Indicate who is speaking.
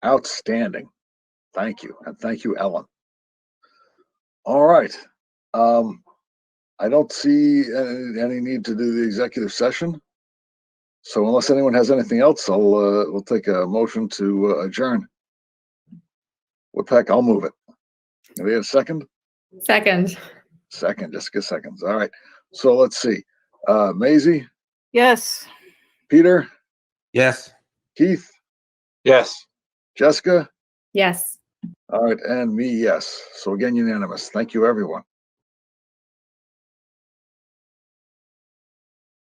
Speaker 1: Outstanding. Thank you. And thank you, Ellen. All right. Um, I don't see any, any need to do the executive session. So unless anyone has anything else, I'll, uh, we'll take a motion to uh, adjourn. Woodpeck, I'll move it. Do we have a second?
Speaker 2: Second,
Speaker 1: Second, Jessica seconds. All right. So let's see. Uh, Maisie,
Speaker 3: Yes.
Speaker 1: Peter,
Speaker 4: Yes.
Speaker 1: Keith,
Speaker 4: Yes.
Speaker 1: Jessica.
Speaker 2: yes.
Speaker 1: All right. And me, yes. So again, unanimous. Thank you, everyone.